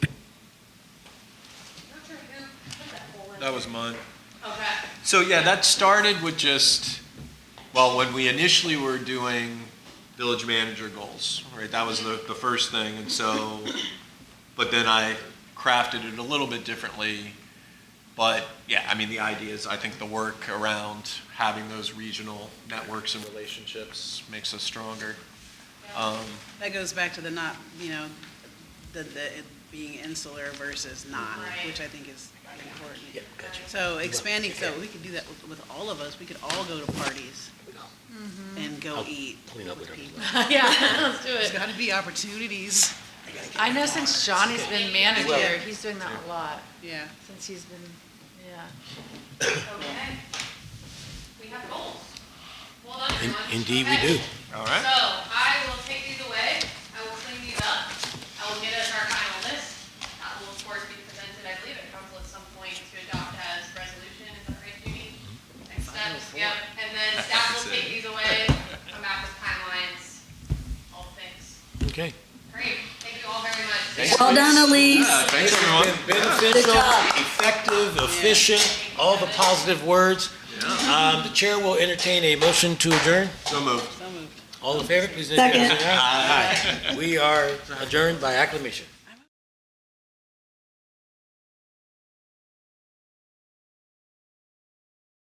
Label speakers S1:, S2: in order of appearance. S1: That was mine.
S2: Okay,
S1: So yeah, that started with just, well, when we initially were doing village manager goals, right? That was the, the first thing, and so, but then I crafted it a little bit differently. But yeah, I mean, the idea is, I think the work around having those regional networks and relationships makes us stronger. Um,
S3: That goes back to the not, you know, the, the, it being insular versus not,
S2: Right.
S3: which I think is important. So expanding, so we could do that with, with all of us, we could all go to parties and go
S4: I'll
S3: eat.
S4: clean up with her.
S3: people.
S5: Yeah, let's do
S3: There's
S5: it.
S3: gotta be opportunities,
S5: I know since Johnny's been manager, he's doing that a lot,
S3: yeah.
S5: since he's been, yeah.
S2: okay. We have goals. Well done,
S4: In-
S2: everyone.
S4: Indeed, we
S2: Okay.
S4: do.
S1: All
S2: So
S1: right?
S2: I will take these away, I will clean these up, I will get us our final list. That will of course be presented, I believe, at council at some point to adopt as resolution, is that right, Judy? Next steps, yep, and then staff will take these away, come back with timelines, all things.
S4: Okay.
S2: Great, thank you all very much.
S6: Well done, Elise.
S1: Yeah, Thanks, everyone.
S4: Beneficial, effective, efficient, all the positive words. Um, The chair will entertain a motion to adjourn.
S1: So moved.
S3: So moved.
S4: All in favor, please indicate by saying aye. Aye. We are adjourned by acclamation.